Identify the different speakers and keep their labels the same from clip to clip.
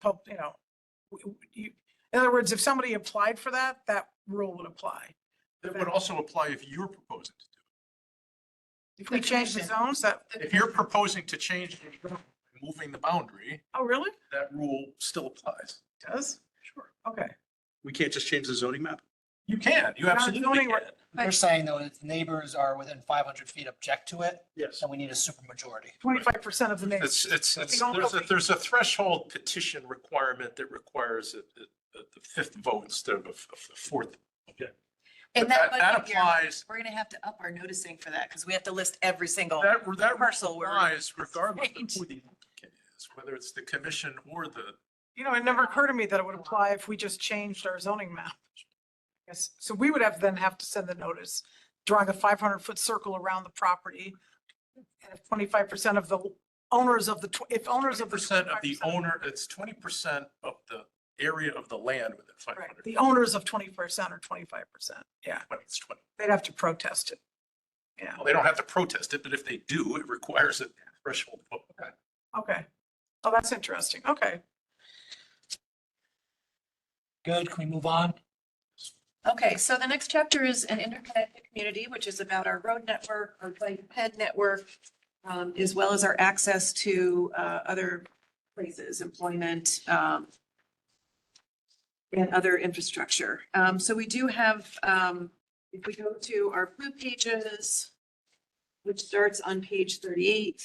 Speaker 1: pub, you know, w- w- you, in other words, if somebody applied for that, that rule would apply.
Speaker 2: That would also apply if you're proposing to do
Speaker 1: If we change the zones, that,
Speaker 2: it. If you're proposing to change, the zone by moving the boundary,
Speaker 1: oh, really?
Speaker 2: that rule still applies.
Speaker 1: Does?
Speaker 2: Sure.
Speaker 1: Okay.
Speaker 3: We can't just change the zoning map?
Speaker 2: You can, you
Speaker 1: Not
Speaker 2: absolutely
Speaker 1: zoning
Speaker 2: can.
Speaker 1: re-
Speaker 4: They're saying though, if neighbors are within five hundred feet object to it,
Speaker 3: Yes.
Speaker 4: then we need a supermajority.
Speaker 1: Twenty-five percent of the name.
Speaker 3: It's, it's,
Speaker 1: We
Speaker 3: it's,
Speaker 1: don't
Speaker 3: there's a,
Speaker 1: really-
Speaker 3: there's a threshold petition requirement that requires a, a, a fifth vote instead of a f- a fourth.
Speaker 2: But
Speaker 5: And
Speaker 2: That
Speaker 5: that
Speaker 2: that
Speaker 5: budget year,
Speaker 2: applies,
Speaker 5: we're gonna have to up our noticing for that because we have to list every single.
Speaker 2: that, that
Speaker 5: Parcel where-
Speaker 2: applies regardless of
Speaker 5: Right.
Speaker 2: who the applicant is, whether it's the commission or the,
Speaker 1: You know, it never occurred to me that it would apply if we just changed our zoning map. Yes, so we would have then have to send the notice, drawing a five hundred foot circle around the property. And if twenty-five percent of the owners of the, tw- if owners of the.
Speaker 2: percent of the
Speaker 1: 25%
Speaker 2: owner, it's twenty percent of the area of the land within five
Speaker 1: Right,
Speaker 2: hundred.
Speaker 1: the owners of twenty percent or twenty-five percent, yeah,
Speaker 2: It's twenty.
Speaker 1: they'd have to protest it. Yeah,
Speaker 2: Well, they don't have to protest it, but if they do, it requires a threshold vote.
Speaker 1: okay. Oh, that's interesting, okay.
Speaker 4: Good, can we move on?
Speaker 5: Okay, so the next chapter is an interconnected community, which is about our road network, our bike ped network, um, as well as our access to, uh, other places, employment, um, and other infrastructure. Um, so we do have, um, if we go to our blue pages, which starts on page thirty-eight,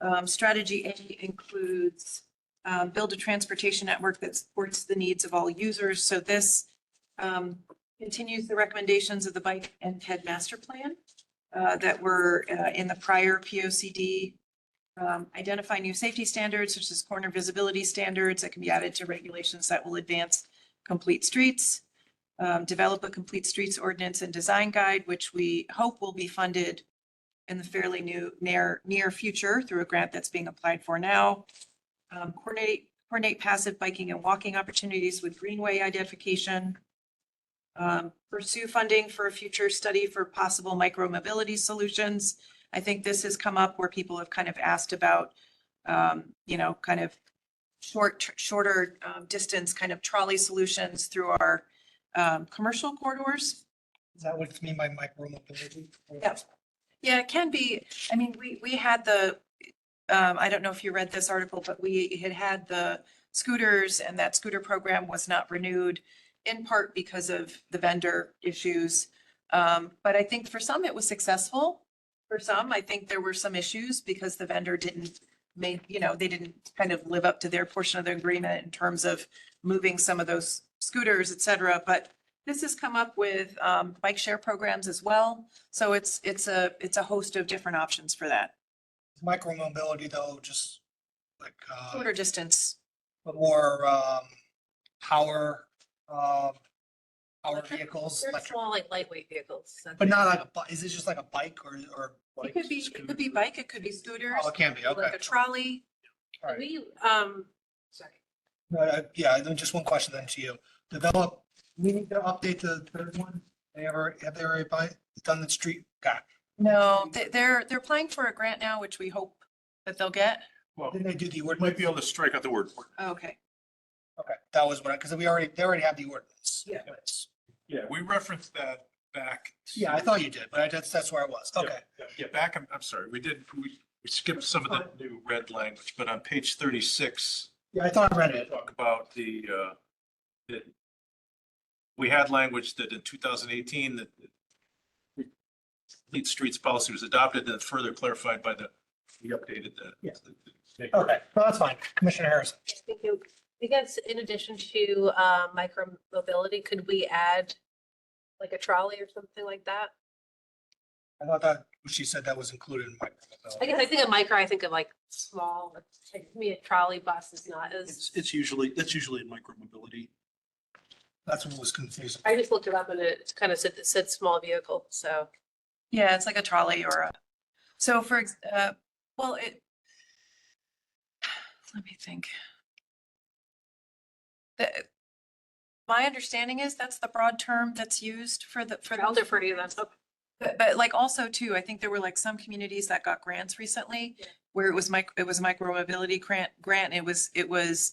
Speaker 5: um, strategy A includes, um, build a transportation network that supports the needs of all users. So this, um, continues the recommendations of the bike and ped master plan uh, that were uh, in the prior P O C D. Identify new safety standards such as corner visibility standards that can be added to regulations that will advance complete streets. Um, Develop a complete streets ordinance and design guide, which we hope will be funded in the fairly new, near, near future through a grant that's being applied for now. Um, Coordinate, coordinate passive biking and walking opportunities with greenway identification. Um, pursue funding for a future study for possible micro mobility solutions. I think this has come up where people have kind of asked about, um, you know, kind of short, shorter, um, distance kind of trolley solutions through our, um, commercial corridors.
Speaker 4: Is that what you mean by micro mobility?
Speaker 5: Yes. Yeah, it can be. I mean, we, we had the, um, I don't know if you read this article, but we had had the scooters and that scooter program was not renewed in part because of the vendor issues. Um, but I think for some it was successful. For some, I think there were some issues because the vendor didn't make, you know, they didn't kind of live up to their portion of the agreement in terms of moving some of those scooters, et cetera. But this has come up with, um, bike share programs as well. So it's, it's a, it's a host of different options for that.
Speaker 4: Micro mobility though, just like, uh,
Speaker 5: Shorter distance.
Speaker 4: but more, um, power, um, power
Speaker 6: Electric?
Speaker 4: vehicles,
Speaker 6: They're
Speaker 4: electric-
Speaker 6: small, like lightweight vehicles. so
Speaker 4: but not like a, bi- is it just like a bike or, or?
Speaker 5: It could be, it could be bike, it could be scooters,
Speaker 4: Oh, it can be,
Speaker 5: like
Speaker 4: okay.
Speaker 5: a trolley.
Speaker 4: All right.
Speaker 6: We, um, sorry.
Speaker 4: Uh, yeah, then just one question then to you. Develop, we need to update the third one. They ever, have they already bi- done the street? God,
Speaker 5: No, they- they're, they're applying for a grant now, which we hope that they'll get.
Speaker 2: Well,
Speaker 4: didn't they do the
Speaker 2: might
Speaker 4: ordinance?
Speaker 2: be able to strike out the word.
Speaker 5: Okay.
Speaker 4: Oh, Okay, that was what, because we already, they already have the ordinance.
Speaker 5: Yeah.
Speaker 2: Yeah. We referenced that back.
Speaker 4: Yeah, I thought you did, but I, that's, that's where I was.
Speaker 2: Yeah.
Speaker 4: Okay.
Speaker 2: Yeah, back, I'm, I'm sorry, we did, we we skipped some of the new red language, but on page thirty-six,
Speaker 4: Yeah, I thought I read
Speaker 2: they
Speaker 4: it.
Speaker 2: talk about the, uh, that we had language that in two thousand eighteen, that the complete streets policy was adopted and further clarified by the, we updated the.
Speaker 4: Yeah. Okay, well, that's fine. Commissioner Harrison.
Speaker 6: I think you- I guess in addition to, uh, micro mobility, could we add like a trolley or something like that?
Speaker 4: I thought that, she said that was included in my.
Speaker 6: I guess I think of micro, I think of like small, like to me, a trolley bus is not as,
Speaker 3: It's, it's usually, that's usually in micromobility.
Speaker 4: That's what was confusing.
Speaker 6: I just looked it up and it kind of said, it said small vehicle, so.
Speaker 5: Yeah, it's like a trolley or a, so for, ex- uh, well, it, let me think. The- My understanding is that's the broad term that's used for the, for.
Speaker 6: I'll
Speaker 5: those
Speaker 6: defer to you then.
Speaker 5: But, but like also too, I think there were like some communities that got grants recently
Speaker 6: Yeah.
Speaker 5: where it was mic, it was micro mobility grant, grant. It was, it was